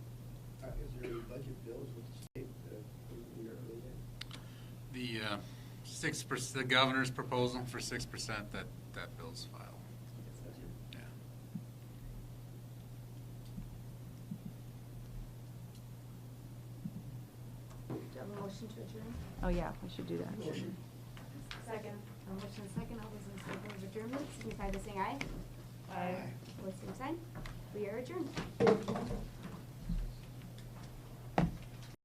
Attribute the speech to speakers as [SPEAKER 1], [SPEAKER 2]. [SPEAKER 1] Uh, budget bills with the state uh, in the early days.
[SPEAKER 2] The uh, six percent, the governor's proposal for six percent, that, that bill's filed. Yeah.
[SPEAKER 3] Do you have a motion to adjourn?
[SPEAKER 4] Oh, yeah, we should do that.
[SPEAKER 1] Motion.
[SPEAKER 3] Second. A motion and second, all those in favor of adjournment, signify by saying aye.
[SPEAKER 1] Aye.
[SPEAKER 3] Opposed, same sign. We are adjourned.